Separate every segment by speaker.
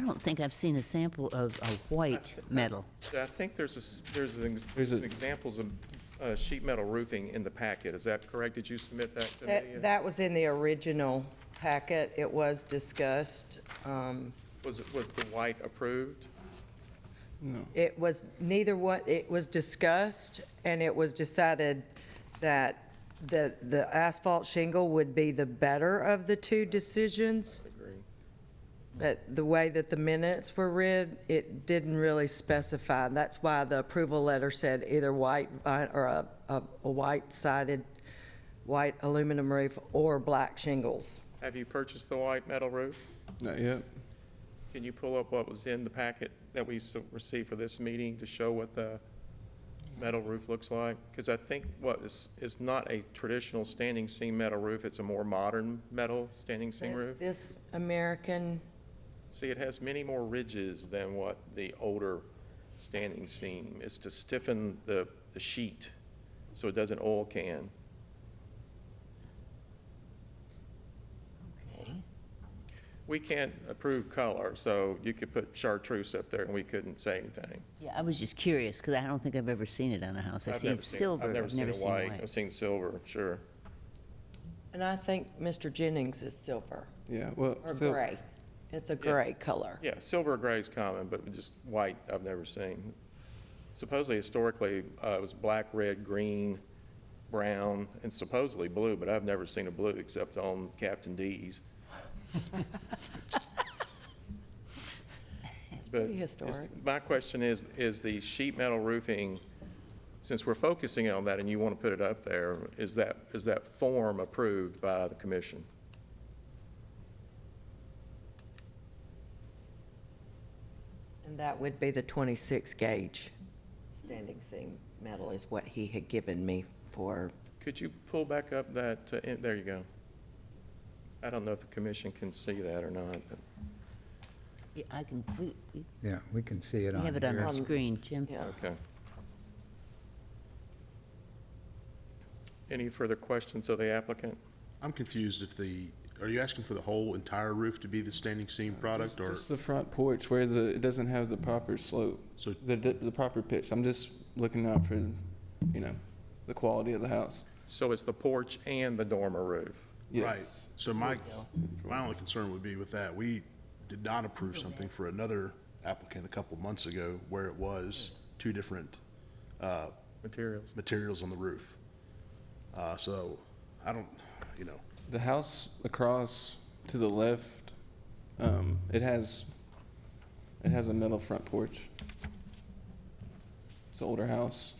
Speaker 1: don't think I've seen a sample of a white metal.
Speaker 2: So I think there's a, s- there's an ex-
Speaker 3: There's a-
Speaker 2: some examples of uh, sheet metal roofing in the packet. Is that correct? Did you submit that to
Speaker 4: Uh, That,
Speaker 2: me?
Speaker 4: that was in the original packet. It was discussed. Um,
Speaker 2: Was, it- was the white approved?
Speaker 4: It was neither one, it was discussed, and it was decided that the, the asphalt shingle would be the better of the two decisions. But the way that the minutes were read, it didn't really specify. That's why the approval letter said either white vi- or a, a a white sided, white aluminum roof or black shingles.
Speaker 2: Have you purchased the white metal roof?
Speaker 3: Not yet.
Speaker 2: Can you pull up what was in the packet that we s- received for this meeting to show what the metal roof looks like? Because I think what is, is not a traditional standing seam metal roof, it's a more modern metal standing seam roof.
Speaker 4: This American,
Speaker 2: See, it has many more ridges than what the older standing seam. It's to stiffen the, the sheet so it doesn't oil can. We can't approve color, so you could put chartreuse up there and we couldn't say anything.
Speaker 1: Yeah, I was just curious, because I don't think I've ever seen it on a house. I've seen
Speaker 2: never
Speaker 1: silver, I've never seen
Speaker 2: white. I've
Speaker 1: white.
Speaker 2: seen silver, sure.
Speaker 4: and I think Mr. Jennings is silver
Speaker 3: Yeah, well,
Speaker 4: or
Speaker 3: sil-
Speaker 4: gray. It's a gray color.
Speaker 2: Yeah, silver or gray is common, but just white, I've never seen. Supposedly historically, uh, it was black, red, green, brown, and supposedly blue, but I've never seen a blue except on Captain D's. But
Speaker 4: pretty
Speaker 2: it's-
Speaker 4: historic.
Speaker 2: My question is, is the sheet metal roofing, since we're focusing on that and you want to put it up there, is that, is that form approved by the commission?
Speaker 4: And that would be the 26 gauge standing seam metal is what he had given me for.
Speaker 2: Could you pull back up that, uh, in- there you go. I don't know if the commission can see that or not. but-
Speaker 1: Yeah, I can, we we
Speaker 5: Yeah, we can see it on
Speaker 1: have it on
Speaker 5: here.
Speaker 1: our screen, Jim.
Speaker 4: Yeah.
Speaker 2: Okay. Any further questions of the applicant?
Speaker 6: I'm confused if the, are you asking for the whole entire roof to be the standing seam product or?
Speaker 3: just the front porch where the, it doesn't have the proper slope,
Speaker 6: So-
Speaker 3: the, the the proper pitch. I'm just looking out for, you know, the quality of the house.
Speaker 2: So it's the porch and the dormer roof.
Speaker 6: Right.
Speaker 3: Yes.
Speaker 6: So my, my only concern would be with that, we did not approve something for another applicant a couple months ago where it was two different uh,
Speaker 2: Materials.
Speaker 6: materials on the roof. Uh, So I don't, you know,
Speaker 3: The house across to the left, um, it has, it has a metal front porch. It's an older house.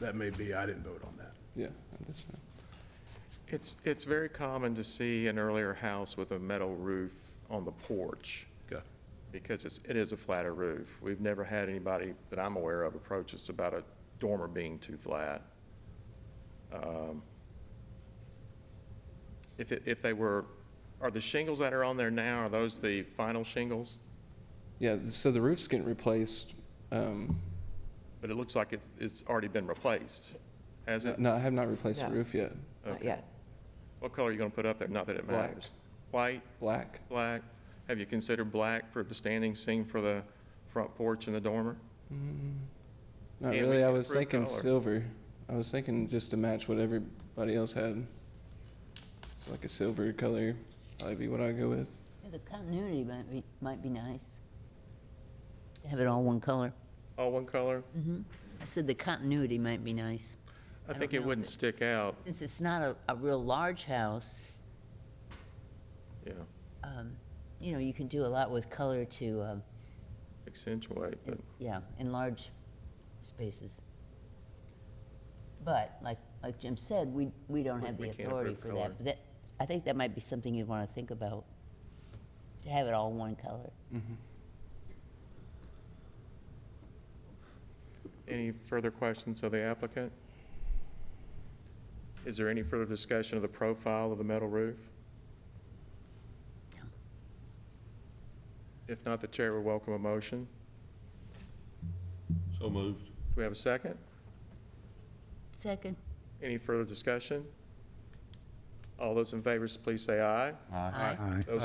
Speaker 6: that may be, I didn't vote on that.
Speaker 3: Yeah, I'm just saying.
Speaker 2: It's, it's very common to see an earlier house with a metal roof on the porch
Speaker 6: Okay.
Speaker 2: because it's, it is a flatter roof. We've never had anybody that I'm aware of approach us about a dormer being too flat. Um, If, it- if they were, are the shingles that are on there now, are those the final shingles?
Speaker 3: Yeah, so the roof's getting replaced. Um,
Speaker 2: But it looks like it's, it's already been replaced, has it?
Speaker 3: no, I have not replaced the
Speaker 4: No.
Speaker 3: roof yet.
Speaker 4: Not yet.
Speaker 2: What color are you going to put up there? Not that it
Speaker 3: Black.
Speaker 2: matters. White,
Speaker 3: Black.
Speaker 2: black? Have you considered black for the standing seam for the front porch and the dormer?
Speaker 3: Not
Speaker 2: Yeah, we
Speaker 3: really. I
Speaker 2: can
Speaker 3: was
Speaker 2: approve
Speaker 3: thinking
Speaker 2: color.
Speaker 3: silver. I was thinking just to match what everybody else had. So like a silver color, probably be what I go with.
Speaker 1: Yeah, The continuity might be, might be nice. To Have it all one color.
Speaker 2: All one color?
Speaker 1: I said the continuity might be nice.
Speaker 2: I
Speaker 1: don't
Speaker 2: think
Speaker 1: know
Speaker 2: it
Speaker 1: if
Speaker 2: wouldn't
Speaker 1: it-
Speaker 2: stick out,
Speaker 1: Since it's not a, a real large house,
Speaker 2: yeah,
Speaker 1: um, you know, you can do a lot with color to, um,
Speaker 2: accentuate, but
Speaker 1: yeah, enlarge spaces. But like, like Jim said, we, we don't have
Speaker 2: We-
Speaker 1: the
Speaker 2: we can't
Speaker 1: authority for
Speaker 2: approve color.
Speaker 1: that. But that, I think that might be something you'd want to think about, to have it all one color.
Speaker 2: any further questions of the applicant? Is there any further discussion of the profile of the metal roof?
Speaker 1: No.
Speaker 2: If not, the chair would welcome a motion.
Speaker 7: So moved.
Speaker 2: Do we have a second?
Speaker 1: Second.
Speaker 2: Any further discussion? All those in favor, please say aye.
Speaker 1: Aye.
Speaker 5: Aye.
Speaker 2: Those